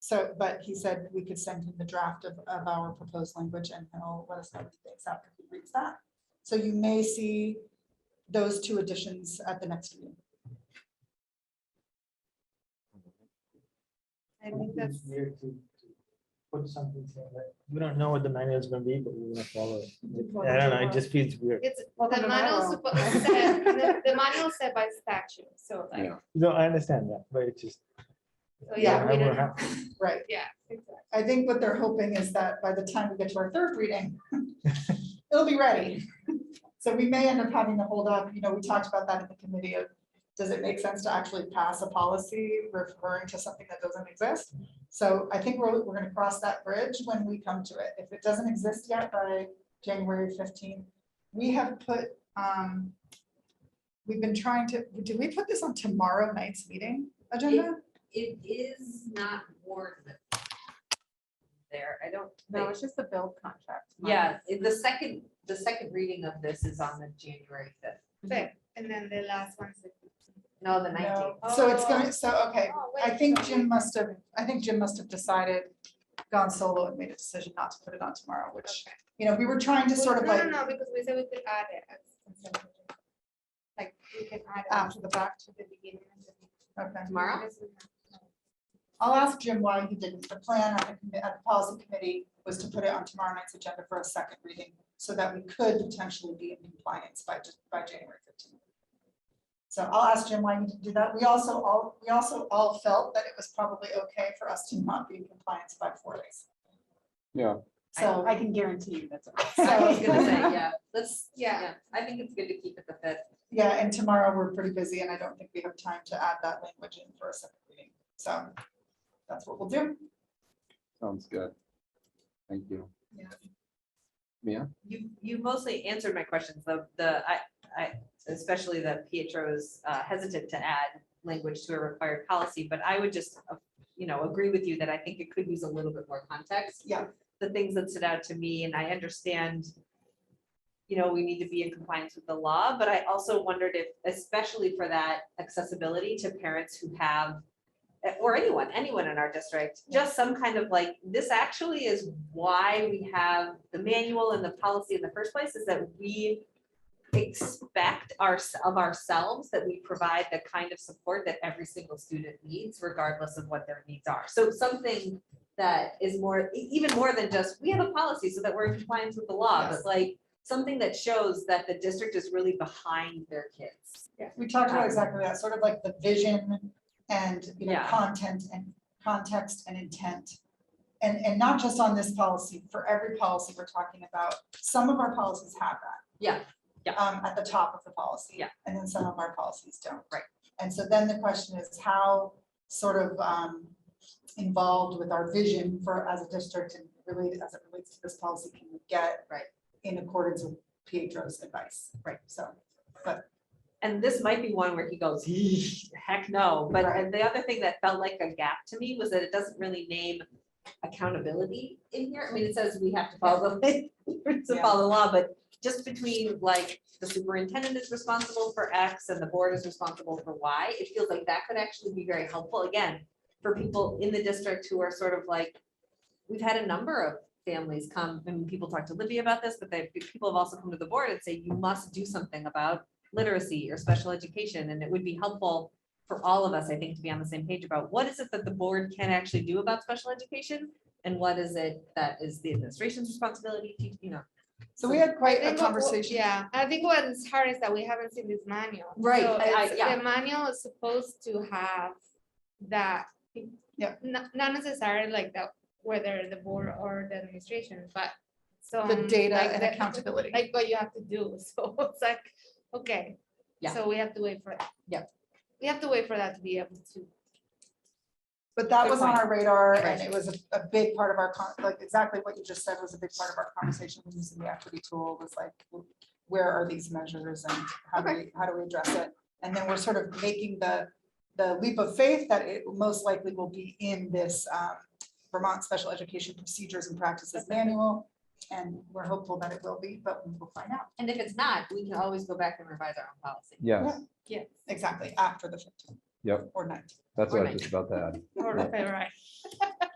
So, but he said we could send him the draft of, of our proposed language and he'll let us know what he thinks after he reads that. So you may see those two additions at the next meeting. I think that's, It's weird to to Put something saying that, we don't know what the manual is gonna be, but we're gonna follow it. follow I don't know, it. it just feels weird. it's, Well, the then I manual will. suppo- said, the the manual is said by statute, so like, Yeah. No, I understand that, but it just. so yeah, Yeah, we I will don't, have- Right. yeah, exactly. I think what they're hoping is that by the time we get to our third reading, it'll be ready. So we may end up having to hold up, you know, we talked about that in the committee of, does it make sense to actually pass a policy referring to something that doesn't exist? So I think we're, we're gonna cross that bridge when we come to it. If it doesn't exist yet by January fifteenth, we have put, um, we've been trying to, did we put this on tomorrow night's meeting agenda? It is not warranted. There, I don't think, just the build contract. yeah, the second, the second reading of this is on the January fifth, And then the last one's the. no, the nineteenth. No. So it's gonna, so, okay, Oh, I wait, think so- Jim must have, I think Jim must have decided, gone solo and made a decision not to put it on tomorrow, which, Okay. you know, we were trying to sort of No, like No, no, because we said we could add it. as consent agenda. Like, we can add. it after the fact. To the beginning. and the- Okay, Tomorrow? Because we have- I'll ask Jim why he didn't. The plan at the, commi- at the policy committee was to put it on tomorrow night's agenda for a second reading so that we could potentially be in compliance by, Jan- by January fifteenth. So I'll ask Jim why he didn't do that. We also all, we also all felt that it was probably okay for us to not be in compliance by four days. Yeah. So. I can guarantee you that's. I was gonna say, yeah, let's, Yeah. yeah, I think it's good to keep it the fifth. Yeah, and tomorrow we're pretty busy and I don't think we have time to add that language in for a second reading. So that's what we'll do. Sounds good. Thank you. Yeah. Mia? You, you mostly answered my questions, the, the, I, I, especially that Pietro's uh, hesitant to add language to a required policy, but I would just, uh, you know, agree with you that I think it could use a little bit more context. Yeah. The things that stood out to me, and I understand, you know, we need to be in compliance with the law, but I also wondered if, especially for that accessibility to parents who have or anyone, anyone in our district, just some kind of like, this actually is why we have the manual and the policy in the first place, is that we expect our, of ourselves that we provide the kind of support that every single student needs regardless of what their needs are. So something that is more, e- even more than just, we have a policy so that we're in compliance with the law, but Yes. like, something that shows that the district is really behind their kids. We talked Um, about exactly that, sort of like the vision and, you know, Yeah. content and context and intent. And, and not just on this policy, for every policy we're talking about, some of our policies have that. Yeah, yeah. Um, at the top of the policy. Yeah. And then some of our policies don't. Right. And so then the question is how sort of, um, involved with our vision for, as a district and related, as it relates to this policy can we get? Right. In accordance with Pietro's advice. Right. So. and this might be one where he goes, heck no, but Right. the other thing that felt like a gap to me was that it doesn't really name accountability in here, I mean, it says we have to follow, the to Yeah. follow the law, but just between like the superintendent is responsible for X and the board is responsible for Y, it feels like that could actually be very helpful, again, for people in the district who are sort of like, we've had a number of families come, and people talk to Libby about this, but they, people have also come to the board and say, you must do something about literacy or special education, and it would be helpful for all of us, I think, to be on the same page about what is it that the board can actually do about special education? And what is it that is the administration's responsibility, to, you know? So we had I quite a think what- what- conversation. Yeah, I think what's hard is that we haven't seen this manual. Right, So I- I- it's- yeah. The manual is supposed to have that. Yeah. Not, not necessarily like that, whether the board or the administration, but so. The data and accountability. um, Like what you have to do, so it's like, okay. Yeah. So we have to wait for. Yeah. We have to wait for that to be able to. But that Good was on point. our radar and Right. it was a, a big part of our, con- like exactly what you just said was a big part of our conversation when using the equity tool was like, w- where are these measures and how do we, how do we address it? And then we're sort of making the, the leap of faith that it most likely will be in this um, Vermont Special Education Procedures and Practices Manual. And we're hopeful that it will be, but we'll find out And if it's not, we can always go back and revise our own policy. Yes, Yes. exactly after the fifteenth. Yep. Or nineteenth. that's what I was just about to add. Or, right.